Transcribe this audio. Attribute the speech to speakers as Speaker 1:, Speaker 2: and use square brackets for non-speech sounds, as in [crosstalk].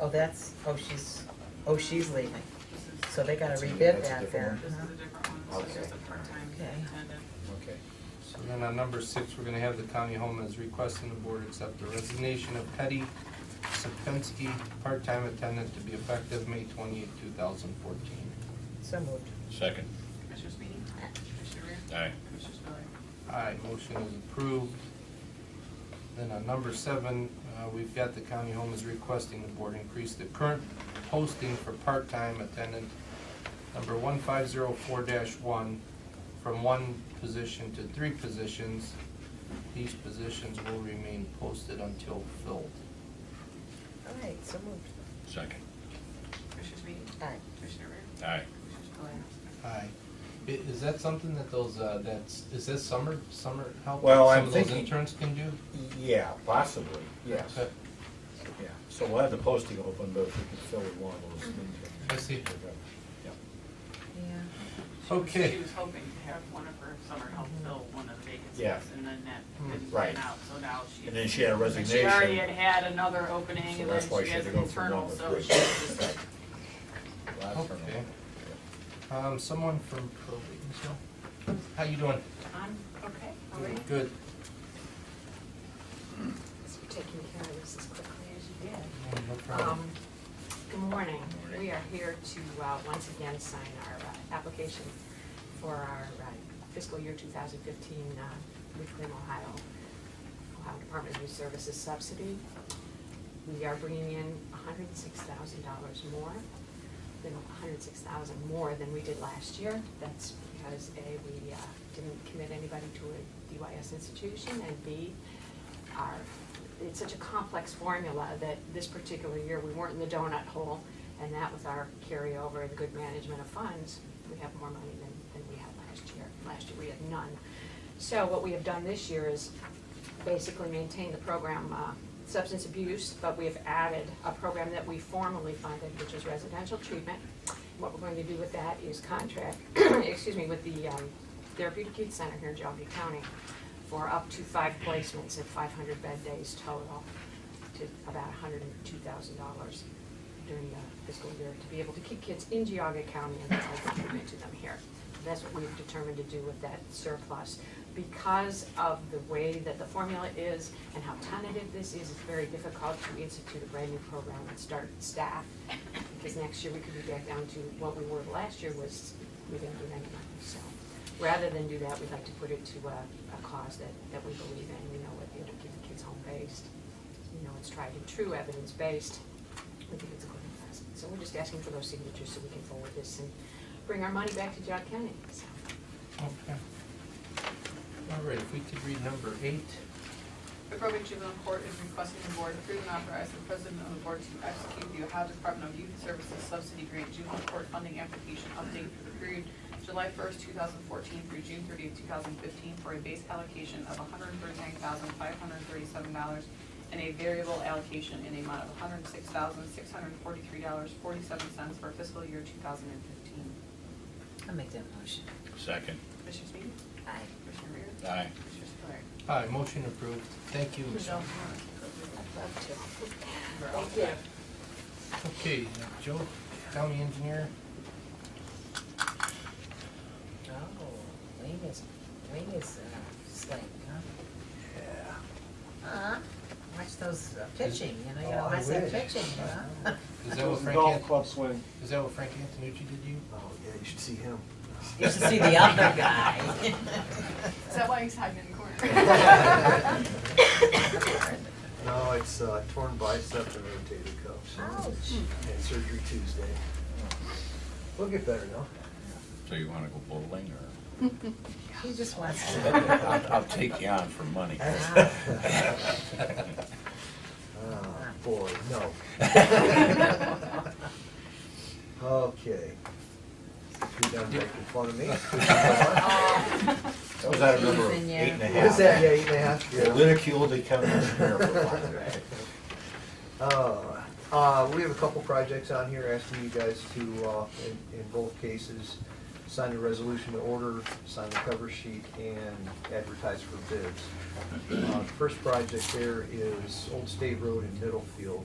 Speaker 1: Oh, that's, oh, she's, oh, she's leaving. So they gotta rebid
Speaker 2: That's a
Speaker 1: that then. Uh-huh.
Speaker 2: different
Speaker 3: This is
Speaker 1: huh?
Speaker 3: a different one, this is just a part-time
Speaker 1: Okay.
Speaker 3: attendant.
Speaker 2: Okay.
Speaker 4: So then on number six, we're gonna have the county home as requesting the board accept the resignation of Petty Sapinski, part-time attendant to be effective May twenty-eight, two thousand fourteen.
Speaker 1: So moved.
Speaker 5: Second.
Speaker 3: Commissioner Sweeney? Commissioner Rea?
Speaker 5: Aye.
Speaker 3: Commissioner Spillier?
Speaker 4: Aye, motion is approved. Then on number seven, uh, we've got the county home is requesting the board increase the current posting for part-time attendant number one five zero four one from one position to three positions. These positions will remain posted until filled.
Speaker 1: All right, so moved.
Speaker 5: Second.
Speaker 3: Commissioner Sweeney?
Speaker 1: Aye.
Speaker 3: Commissioner Rea?
Speaker 5: Aye.
Speaker 3: Commissioner Spillier?
Speaker 4: Aye. I- Is that something that those, uh, that's, is this summer, summer help? that
Speaker 2: Well, I'm
Speaker 4: Some of those
Speaker 2: thinking-
Speaker 4: interns can do?
Speaker 2: Yeah, possibly, yes,
Speaker 4: Okay.
Speaker 2: yeah. So we'll have the posting open, but if we can fill it one of those.
Speaker 4: I see.
Speaker 2: Yeah.
Speaker 1: Yeah.
Speaker 3: She was-
Speaker 4: Okay.
Speaker 3: She was hoping to have one of her summer help fill one of the
Speaker 2: Yeah.
Speaker 3: vacancies, and then that
Speaker 4: Hmm.
Speaker 3: didn't
Speaker 2: Right.
Speaker 3: pan out, so now she.
Speaker 2: And then she had a
Speaker 3: and She already had
Speaker 2: resignation,
Speaker 3: had another opening,
Speaker 2: so
Speaker 3: and then
Speaker 2: that's why
Speaker 3: she
Speaker 2: she
Speaker 3: has
Speaker 2: had to
Speaker 3: an
Speaker 2: go from
Speaker 3: internal,
Speaker 2: one to
Speaker 3: so
Speaker 2: three.
Speaker 3: she was just,
Speaker 2: Last
Speaker 4: Okay.
Speaker 2: turnover.
Speaker 4: Um, someone from probate, Michelle? How you doing?
Speaker 3: I'm, okay, all right.
Speaker 4: Good.
Speaker 6: So you're taking care of this as quickly as you did.
Speaker 4: Yeah, Oh, No
Speaker 6: Um,
Speaker 4: problem.
Speaker 6: Good morning.
Speaker 5: Morning.
Speaker 6: We are here to uh, once again sign our uh, application for our uh, fiscal year 2015 uh, Reclaim Ohio, Ohio Department of Youth Services subsidy. We are bringing in $106,000 more, than $106,000 more than we did last year. That's because A, we uh, didn't commit anybody to a DYS institution, and B, our, it's such a complex formula that this particular year, we weren't in the donut hole, and that with our carryover and good management of funds, we have more money than, than we had last year. Last year, we had none. So what we have done this year is basically maintain the program, uh, substance abuse, but we have added a program that we formally funded, which is residential treatment. What we're going to do with that is contract, [clears throat] excuse me, with the um, Therapeutic Youth Center here in Johnson County for up to five placements at five hundred bed days total to about hundred and two thousand dollars during the fiscal year to be able to keep kids in Geauga County and provide treatment to them here. That's what we've determined to do with that surplus. Because of the way that the formula is and how tentative this is, it's very difficult to institute a brand new program and start staff. Because next year we could be back down to what we were last year was, we didn't do any money, so. Rather than do that, we'd like to put it to a, a cause that, that we believe in, we know what, it'll keep the kids home-based. You know, it's tried and true, evidence-based, we think it's a good investment. So we're just asking for those signatures so we can forward this and bring our money back to John County, so.
Speaker 4: Okay. All right, if we could read number eight.
Speaker 3: The probate juvenile court is requesting the board approve and authorize the president of the board to execute the Ohio Department of Youth Services Subsidy Grant Juvenile Court Funding Application Update for the period July first, two thousand fourteen through June thirtieth, two thousand fifteen, for a base allocation of hundred thirty-nine thousand, five hundred thirty-seven dollars and a variable allocation in the amount of hundred six thousand, six hundred forty-three dollars, forty-seven cents for fiscal year two thousand and fifteen.
Speaker 1: I'll make that motion.
Speaker 5: Second.
Speaker 3: Commissioner Sweeney?
Speaker 1: Aye.
Speaker 3: Commissioner Rea?
Speaker 5: Aye.
Speaker 3: Commissioner Spillier?
Speaker 4: Aye, motion approved. Thank you, Michelle.
Speaker 6: I'd love to.
Speaker 3: We're all
Speaker 6: [laughs] Thank you.
Speaker 3: set.
Speaker 4: Okay, Joe, county engineer.
Speaker 1: Oh, Wayne is, Wayne is uh, slaying, huh?
Speaker 2: Yeah.
Speaker 1: Huh? Watch those uh, pitching, you know, you
Speaker 2: Oh,
Speaker 1: gotta
Speaker 2: I
Speaker 1: watch that
Speaker 2: wish.
Speaker 1: pitching, you
Speaker 2: [laughs]
Speaker 1: know?
Speaker 4: Is that what Frank,
Speaker 2: Golf
Speaker 4: An-
Speaker 2: club swing.
Speaker 4: is that what Frank Antonucci did you?
Speaker 2: Oh, yeah, you should see him.
Speaker 1: You should see the other guy. [laughs]
Speaker 3: Is that why he's hiding in the corner?
Speaker 2: No, it's uh, torn biceps and rotator cuff.
Speaker 1: Ouch.
Speaker 2: And surgery Tuesday. We'll get better though.
Speaker 5: So you wanna go bowling or?
Speaker 1: He just wants
Speaker 2: [laughs]
Speaker 1: to.
Speaker 5: [laughs] I'll, I'll take you on for money.
Speaker 1: Ah.
Speaker 2: Ah, boy, no. Okay. You done making fun of me?
Speaker 5: That was
Speaker 1: [laughs]
Speaker 5: out
Speaker 1: of number Using you. eight and a
Speaker 2: What is that, yeah, eight and a half? Yeah.
Speaker 5: Ridiculed the county engineer for that.
Speaker 2: Uh, uh, we have a couple projects on here asking you guys to, uh, in, in both cases, sign the resolution to order, sign the cover sheet, and advertise for bids. Uh, the first project there is Old State Road in Middlefield.